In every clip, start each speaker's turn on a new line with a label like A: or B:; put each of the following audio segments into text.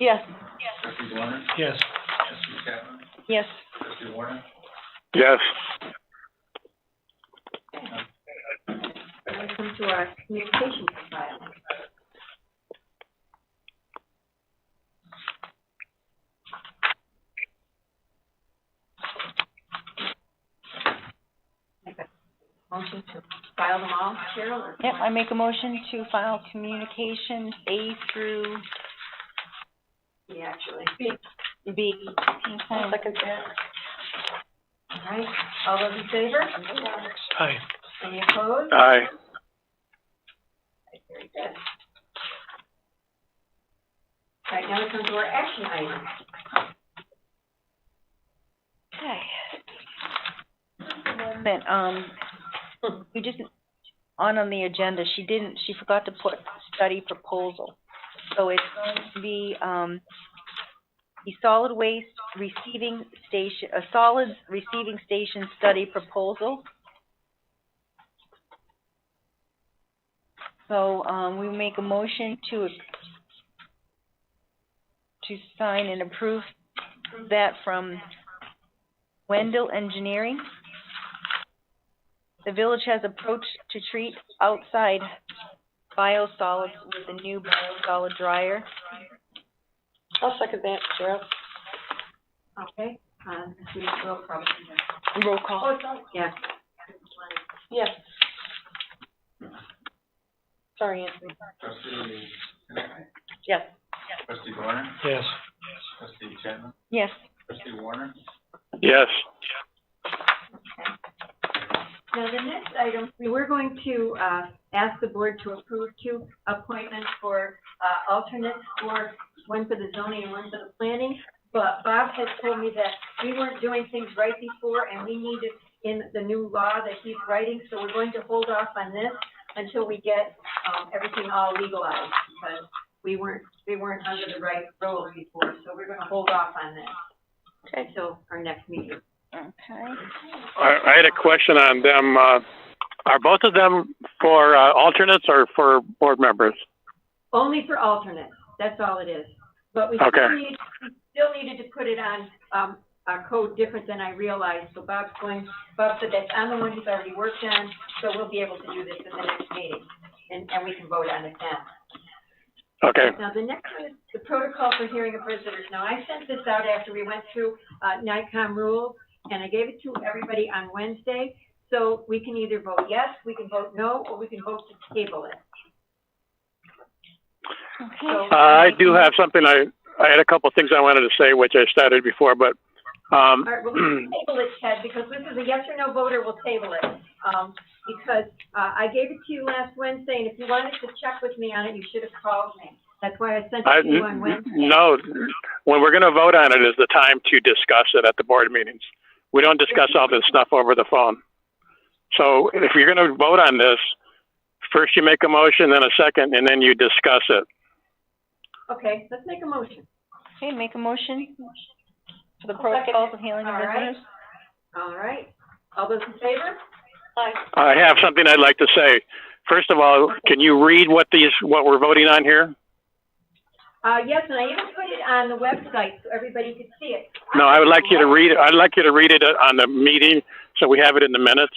A: Yes.
B: Trustee Warner?
C: Yes.
B: Trustee Chapman?
A: Yes.
B: Trustee Warner?
D: Yes.
E: When it comes to our communications file. Make a Motion to file them all, Cheryl, or?
A: Yep, I make a motion to file communications A through
E: Yeah, actually.
A: B.
E: Second All right, all those in favor?
C: Aye.
E: Any opposed?
D: Aye.
E: Very good. All right, now we come to our action items.
A: Okay. Then, um, we just, on on the agenda, she didn't, she forgot to put study proposal. So it's going to be, um, the solid waste receiving station, a solids receiving station study proposal. So, um, we make a motion to, to sign and approve that from Wendell Engineering. The village has approached to treat outside biosolids with a new biosolid dryer.
F: I'll second that, Cheryl.
E: Okay, um, we will probably.
A: Roll
E: Oh,
A: call.
E: it's on, yeah.
F: Yes. Sorry, Anthony.
B: Trustee Connectney?
A: Yes.
B: Trustee Warner?
C: Yes.
B: Trustee Chapman?
A: Yes.
B: Trustee Warner?
D: Yes.
E: Now, the next item, we were going to, uh, ask the board to approve two appointments for, uh, alternates for, one for the zoning and one for the planning. But Bob has told me that we weren't doing things right before and we needed in the new law that he's writing, so we're going to hold off on this until we get, um, everything all legalized, because we weren't, we weren't under the right rules before, so we're gonna hold off on this. Okay. So, our next meeting.
A: Okay.
D: I, I had a question on them. Uh, are both of them for uh, alternates or for board members?
E: Only for alternates, that's all it is. But we still
D: Okay.
E: need, we still needed to put it on, um, a code different than I realized, so Bob's going, Bob said that's on the one he's already worked on, so we'll be able to do this in the next meeting, and, and we can vote on it then.
D: Okay.
E: Now, the next one is the protocol for hearing of visitors. Now, I sent this out after we went through, uh, NICOM rules, and I gave it to everybody on Wednesday. So we can either vote yes, we can vote no, or we can vote to table it.
A: Okay.
D: Uh, I do have something. I, I had a couple things I wanted to say, which I started before, but
E: All
D: um,
E: right, well, we'll table it, Ted, because this is a yes or no voter, we'll table it. Um, because, uh, I gave it to you last Wednesday, and if you wanted to check with me on it, you should have called me. That's why I sent
D: I,
E: it to you on Wednesday.
D: no, when we're going to vote on it is the time to discuss it at the board meetings. We don't discuss all this stuff over the phone. So if you're going to vote on this, first you make a motion, then a second, and then you discuss it.
E: Okay, let's make a motion.
A: Okay, make a motion for the
E: I'll second
A: protocols of healing of
E: All right.
A: visitors.
E: All right, all those in favor?
D: I have something I'd like to say. First of all, can you read what these, what we're voting on here?
E: Uh, yes, and I even put it on the website so everybody could see it.
D: No, I would like you to read it, I'd like you to read it on the meeting, so we have it in the minutes.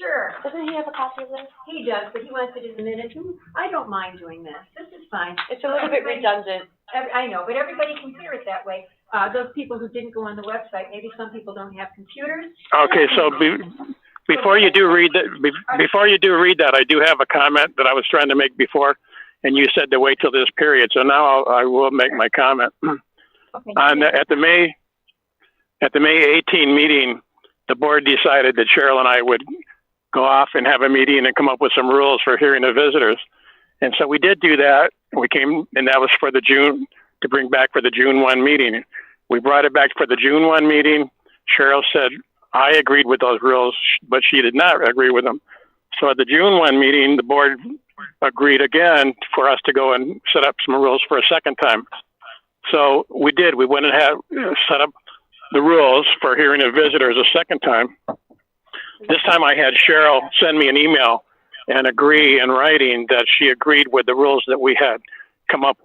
E: Sure,
F: Doesn't he have a copy of this?
E: he does, but he wants it in the minutes. Ooh, I don't mind doing this, this is fine.
F: It's a little bit redundant.
E: Every, I know, but everybody can hear it that way. Uh, those people who didn't go on the website, maybe some people don't have computers.
D: Okay, so be, before you do read that, be, before you do read that, I do have a comment that I was trying to make before, and you said to wait till this period, so now I'll, I will make my comment.
E: Okay.
D: On, the- at the May, at the May 18 meeting, the board decided that Cheryl and I would go off and have a meeting and come up with some rules for hearing of visitors. And so we did do that. We came, and that was for the June, to bring back for the June 1 meeting. We brought it back for the June 1 meeting. Cheryl said, I agreed with those rules, but she did not agree with them. So at the June 1 meeting, the board agreed again for us to go and set up some rules for a second time. So we did. We went and had set up the rules for hearing of visitors a second time. This time I had Cheryl send me an email and agree in writing that she agreed with the rules that we had come up